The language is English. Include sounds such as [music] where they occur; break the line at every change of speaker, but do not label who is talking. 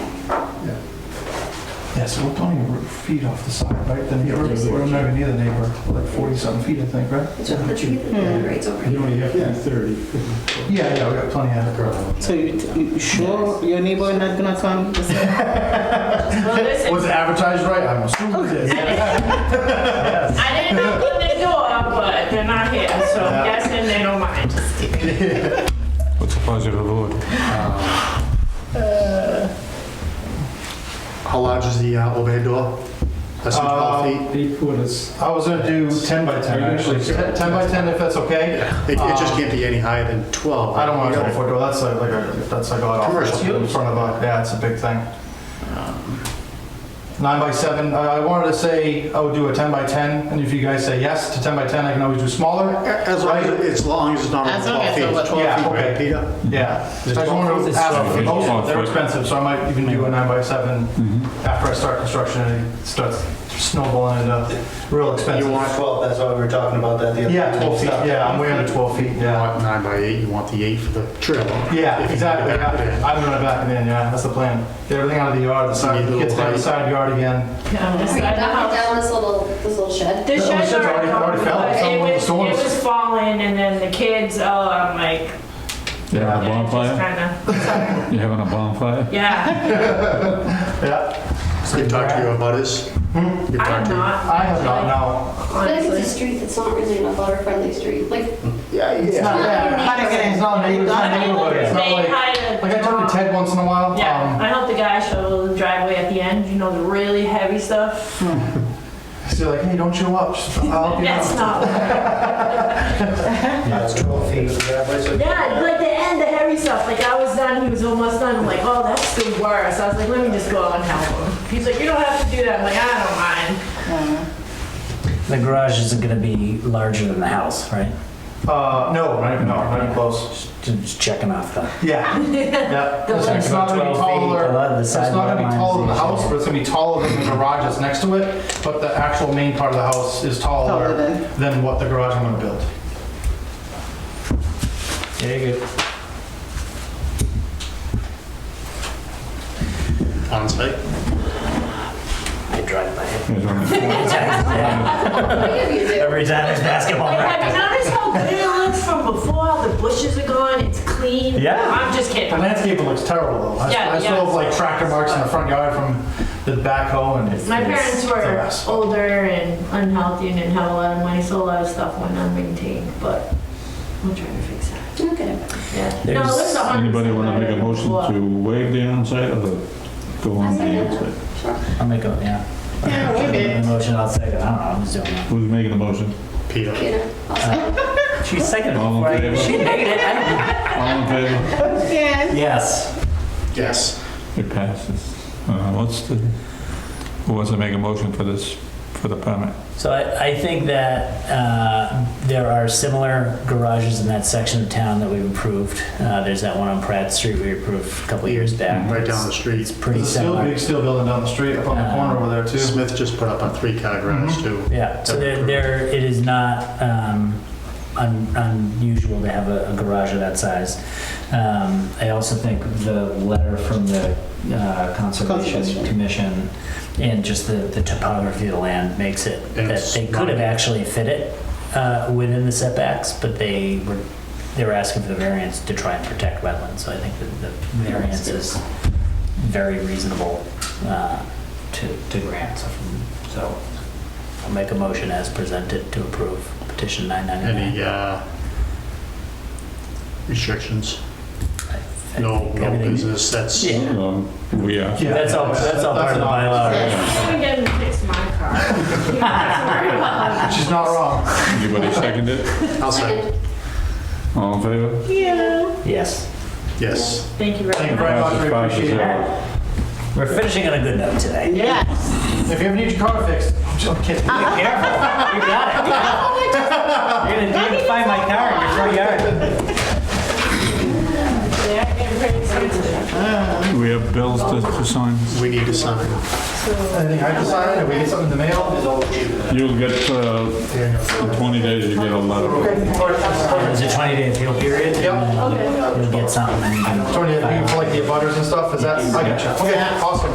Yeah, so we're plenty of feet off the side, right? The neighbor, we're not near the neighbor, like 40-something feet, I think, right?
It's over, it's over, it's
You
over.
only have to
Yeah.
be 30.
Yeah, yeah, we got plenty of
So you, you sure your neighbor not gonna come?
Well, listen,
it advertised right? I'm assuming it
[laughs]
is.
I didn't knock on their door, but they're not here, so I'm guessing they don't mind.
What's the pleasure of the board?
How large is the uh, overhead door? Less
Um,
than 12 feet?
Eight quarters.
I was gonna do 10 by 10, actually. 10 by 10, if that's okay?
It, it just can't be any higher than 12.
um, I don't want
You
to go
gotta-
for door. That's like, like a, that's like a lot off.
Commercial.
It's In front of a, yeah, it's a big thing. Nine by seven. I I wanted to say I would do a ten by ten, and if you guys say yes to ten by ten, I can always do smaller.
A- As long as, it- as long as it's not
As
over
long
12
as
feet.
it's
It's
over
twelve.
12 feet,
Yeah,
right,
okay.
Peter?
Yeah. I just wanted to ask for proposals. They're expensive, so I might even do a nine by seven after I start construction and it starts snowballing into real expensive.
You want 12, that's why we were talking about that the other day.
Yeah, twelve feet. Yeah, I'm way under twelve feet.
You
Yeah.
want 9 by 8, you want the 8 for the trailer.
Yeah,
If you
exactly.
can get it in.
yeah. I'm gonna back it in, yeah, that's the plan. Get everything out of the yard, the side,
Need a little
gets down the
height.
side yard again.
Um,
Are
this
you
side of
knocking
the house-
down this little, this little shed?
The
Yeah, well,
shed's
shed's
already
already- already fell.
gone,
Someone
it
with
was,
the
it
storms.
was falling, and then the kids, oh, I'm like,
You having a
yeah, it's just
bonfire?
kinda,
You having a bonfire?
yeah.
Yeah,
You talk to your butters.
Hmm?
You
I
talk
am
to-
not.
I have not, no.
I feel like
honestly.
it's a street that's not really an abutter-friendly street, like,
Yeah,
It's
yeah.
not
Yeah.
that. It's not neighborhood, it's not neighborhood, it's not
They
like,
had a-
like I talk to Ted once in a while.
Yeah,
um,
I helped the guy shovel the driveway at the end, you know, the really heavy stuff.
Hmm. He's like, hey, don't show up, Just- I'll help you
That's
out.
not,
It's 12 feet of the driveway, so-
yeah, like the end, the heavy stuff, like I was done, he was almost done, I'm like, oh, that's the worst. I was like, let me just go out and help him. He's like, you don't have to do that, I'm like, I don't mind.
The garage isn't going to be larger than the house, right?
Uh, no, not even, no, not even close.
Just- Just checking off the.
Yeah,
[laughs]
yeah.
The
It's
like
not gonna be
12 feet, the lot-
taller,
the
it's not
side
gonna be
yard
taller than the
lines,
house, but it's gonna be taller than the garage that's next to it. But the actual main part of the house is
Taller
taller
than.
than what the garage I'm gonna build.
Yeah, good.
On site.
I drive by it.
There's only
[laughs]
four-
what do you do?
Every time there's basketball
Like, have you
[laughs]
practice.
noticed how good it looks from before? All the bushes are gone, it's clean.
Yeah.
I'm just kidding.
The landscaping looks terrible though. I-
Yeah,
I
yeah.
still have like tractor marks in the front yard from the backhoe and it's.
My
it's-
parents
it's a
were
mess.
older and unhealthy and didn't have a lot of money, so a lot of stuff went unmaintained, but I'm trying to fix that.
Okay.
Yeah. No, it looks
There's-
a hundred
Anybody
percent
want to make
better
a
than
motion
before.
to waive the onsite or go on the onsite?
I'll make a, yeah.
[laughs] Yeah, we did.
[laughs] The motion, I'll second. I don't know, I'm just doing it.
Who's making the motion?
Peter.
Peter, also,
She seconded
All in
before I-
favor?
She
[laughs]
made it. I don't-
All in favor?
Yes.
[laughs] Yes.
Yes.
It passes. Uh, What's the, who wants to make a motion for this, for the permit?
So I, I think that uh, there are similar garages in that section of town that we've improved. Uh, there's that one on Pratt Street we approved a couple years back.
Mm-hmm. Right down the street.
It's pretty
There's a steel,
similar.
big steel building down the street up on the
Uh,
corner over there too.
Smith just put up a three-car
Mm-hmm.
garage too.
Yeah, so there, there, it is not um, un, unusual to have a, a garage of that size. Um, I also think the letter from the uh, Conservation
Conservation.
Commission and just the, the topography of the land makes it that
It's
they could have
not-
actually fit it uh, within the setbacks, but they were, they were asking for the variance to try and protect wetlands, so I think that the variance is very reasonable uh, to, to grant. So from- So I'll make a motion as presented to approve petition 999.
Any uh, restrictions?
I
No,
think
no
everything-
business, that's,
Yeah.
Um, We are.
Yeah,
That's all, that's all part of the
an
bylaw.
option.
right?
I'm gonna fix my
[laughs]
car. You don't have to worry about it.
She's not wrong.
Anybody second it?
I'll say,
second,
All in favor?
Yes.
yes.
Thank you
Thank
very
you
much.
very much, we
Passes five to
appreciate
zero.
it.
We're finishing on a good note today.
Yes.
If you ever need your car fixed, I'm just kidding.
[laughs]
Careful, you got it. You're gonna- You're gonna find my car in your front yard.
They're getting pretty expensive.
We have bills to to sign.
We need to sign.
Anything I decided, if we get something in the mail.
You'll get, uh, in 20 days, you get a letter.
It's a 20 day appeal period. and
Yep.
You'll get something. and you can-
Tony, you can collect the butters and stuff, is that, I gotcha. Okay, awesome.